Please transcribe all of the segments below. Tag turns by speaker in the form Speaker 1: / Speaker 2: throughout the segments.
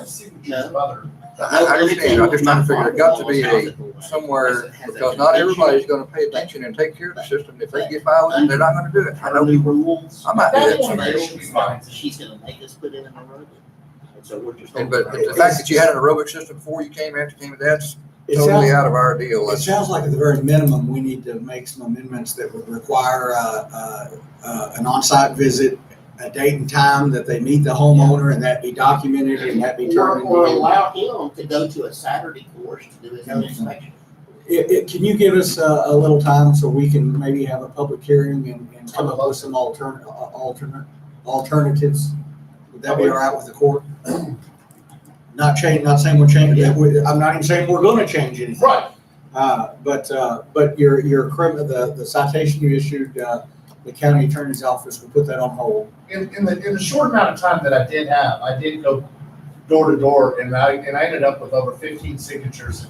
Speaker 1: No.
Speaker 2: signatures of other.
Speaker 3: I I understand, I'm just trying to figure, it got to be a, somewhere, because not everybody's gonna pay attention and take care of the system. If they get violent, they're not gonna do it. I
Speaker 1: Her
Speaker 3: know,
Speaker 1: new rules.
Speaker 3: I might do
Speaker 1: That
Speaker 3: it.
Speaker 1: information
Speaker 2: She's
Speaker 1: is
Speaker 2: fine.
Speaker 1: She's gonna make us put it in an aerobic. And so we're just.
Speaker 3: And but the fact that you had an aerobic system before you came, after you came, that's
Speaker 4: It sounds,
Speaker 3: totally out of our deal.
Speaker 4: it
Speaker 3: That's-
Speaker 4: sounds like at the very minimum, we need to make some amendments that would require, uh, uh, uh, an on-site visit, a date and time that they meet the homeowner and that be documented and that be
Speaker 1: Or,
Speaker 4: turned
Speaker 1: or
Speaker 4: in.
Speaker 1: allow him to go to a Saturday course to do his own inspection.
Speaker 4: It, it, can you give us a, a little time so we can maybe have a public hearing and, and come up with some altern, uh, alternate, alternatives? Would that be all right with the court? Not change, not saying we're changing, that we- I'm not even saying we're gonna change anything.
Speaker 2: Right,
Speaker 4: Uh, but, uh, but your, your criminal, the, the citation you issued, uh, the county attorney's office will put that on hold.
Speaker 2: in, in the, in the short amount of time that I did have, I did go door to door and I, and I ended up with over fifteen signatures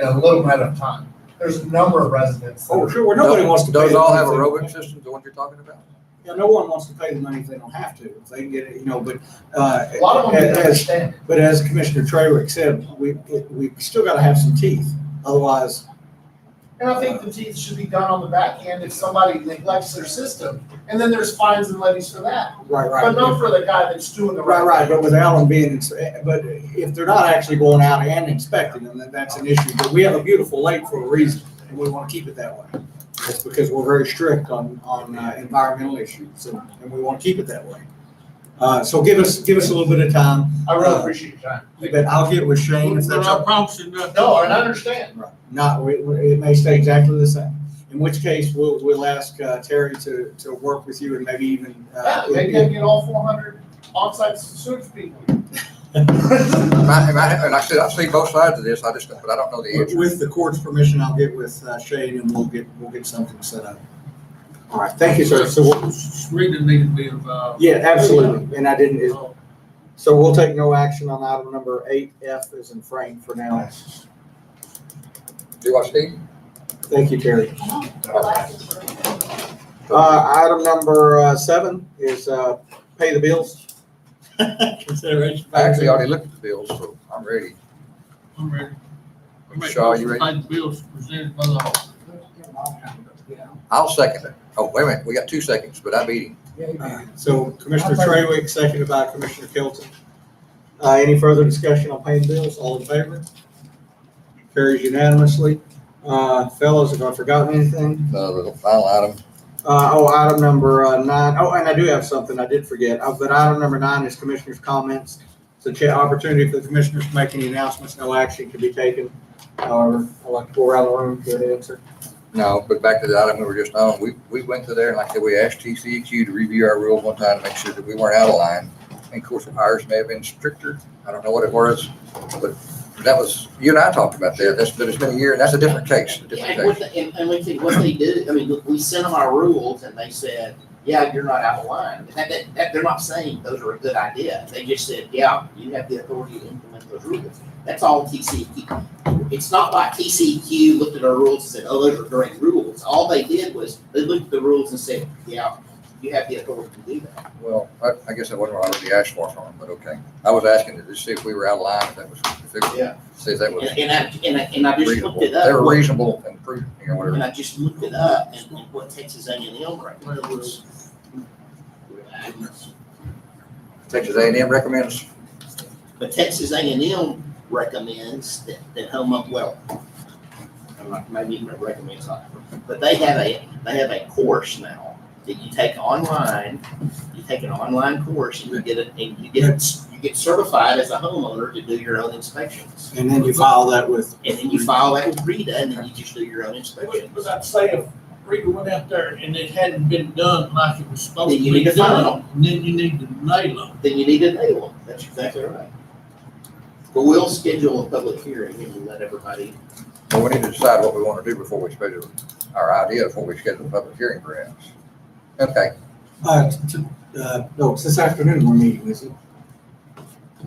Speaker 2: in a little amount of time. There's a number of residents. that are-
Speaker 4: Oh, sure, well, nobody wants to pay.
Speaker 3: Those
Speaker 4: the
Speaker 3: all
Speaker 4: money
Speaker 3: have
Speaker 4: if they don't
Speaker 3: aerobic
Speaker 4: have-
Speaker 3: systems, the ones you're talking about?
Speaker 4: Yeah, no one wants to pay the money if they don't have to, if they can get it, you know, but, uh.
Speaker 2: A lot of them didn't
Speaker 4: as-
Speaker 2: understand.
Speaker 4: But as Commissioner Traywick said, we, we still gotta have some teeth, otherwise,
Speaker 2: And I think the teeth should be done on the back end if somebody neglects their system. And then there's fines and levies for that,
Speaker 4: right,
Speaker 2: but
Speaker 4: right.
Speaker 2: not for the guy that's doing the
Speaker 4: Right,
Speaker 2: right
Speaker 4: right,
Speaker 2: thing.
Speaker 4: but with Allen being, ins- but if they're not actually going out and inspecting them, then that's an issue. But we have a beautiful lake for a reason, and we wanna keep it that way. That's because we're very strict on, on uh, environmental issues, and, and we wanna keep it that way. Uh, so give us, give us a little bit of time,
Speaker 2: I really appreciate your time.
Speaker 4: but I'll get with Shane if that's.
Speaker 5: Without promising nothing.
Speaker 2: No, and I understand.
Speaker 4: Right. Not, we- we- it may stay exactly the same, in which case we'll, we'll ask uh, Terry to, to work with you and maybe even.
Speaker 2: Yeah,
Speaker 4: uh,
Speaker 2: maybe I get all four hundred onsite search people.
Speaker 3: Am I, am I, and I said, I've seen both sides of this, I just, but I don't know the answer.
Speaker 4: With the court's permission, I'll get with uh, Shane and we'll get, we'll get something set up. All right, thank you, sir. So, we'll-
Speaker 5: Reading needed to be involved.
Speaker 4: yeah, absolutely, and I didn't, it-
Speaker 5: Uh,
Speaker 4: so we'll take no action on item number eight F as in Frank for now.
Speaker 3: Do I see?
Speaker 4: Thank you, Terry. Uh, item number uh, seven is uh, pay the bills. Consideration.
Speaker 3: I actually already looked at the bills, so I'm ready.
Speaker 5: I'm ready. I make
Speaker 3: Shaw, you ready?
Speaker 5: motion to Pay the bills presented by the law.
Speaker 3: I'll second it. Oh, wait a minute, we got two seconds, but I beat him.
Speaker 1: Uh,
Speaker 4: So Commissioner Traywick, seconded by Commissioner Kelton. Uh, any further discussion on paying bills? All in favor? Carries unanimously. Uh, fellows, have I forgotten anything?
Speaker 3: No, the final item,
Speaker 4: Uh, oh, item number uh, nine. Oh, and I do have something I did forget. Uh, but item number nine is commissioners' comments. It's a cha- opportunity for the commissioners to make any announcements. No action can be taken. However, I'd like to go around the room, get an answer.
Speaker 3: no, but back to the item we were just on, we, we went to there and like I said, we asked TCEQ to review our rules one time to make sure that we weren't out of line. And of course, ours may have been stricter, I don't know what it was, but that was, you and I talked about that, that's, but it's been a year, and that's a different case, a different
Speaker 1: And what,
Speaker 3: case.
Speaker 1: they- and, and we think what they did, I mean, look, we sent them our rules and they said, yeah, you're not out of line. That, that, that, they're not saying those are a good idea. They just said, yeah, you have the authority to implement those rules. That's all TCEQ. It's not like TCEQ looked at our rules and said, oh, those are great rules. All they did was they looked at the rules and said, yeah, you have the authority to do that.
Speaker 3: Well, I, I guess that wasn't what I really asked for from them, but okay. I was asking to just see if we were out of line, if that was, if it
Speaker 1: Yeah.
Speaker 3: was, see if that was
Speaker 1: And, and I, and I, and I just
Speaker 3: reasonable.
Speaker 1: looked it up.
Speaker 3: They were reasonable and prudent, you know, whatever.
Speaker 1: And I just looked it up and and what Texas A and M recommends.
Speaker 3: Texas A and M recommends,
Speaker 1: But Texas A and M recommends that, that home, well, I'm not, maybe even recommends not, but they have a, they have a course now that you take online. You take an online course and you get it, and you get, you get certified as a homeowner to do your own inspections.
Speaker 4: And then you file that with.
Speaker 1: And then you file that with Rita and then you just do your own inspections.
Speaker 5: But I'd say if Rita went out there and it hadn't been done like it was supposed
Speaker 1: Then you
Speaker 5: to be
Speaker 1: need to file
Speaker 5: done, then you need to nail them.
Speaker 1: then you need a day one. That's exactly right. But we'll schedule a public hearing and we'll let everybody,
Speaker 3: well, we need to decide what we want to do before we schedule our idea, before we schedule a public hearing perhaps. Okay,
Speaker 4: Uh, t- uh, no, it's this afternoon we're meeting, is it?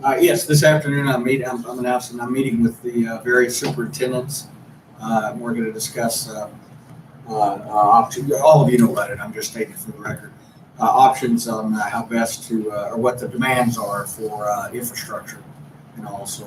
Speaker 4: Uh, yes, this afternoon I'm meeting, I'm, I'm announcing, I'm meeting with the uh, various superintendents. Uh, and we're gonna discuss, uh, uh, uh, options, all of you know about it, I'm just stating for the record. Uh, options on uh, how best to, uh, or what the demands are for, uh, infrastructure. and all, so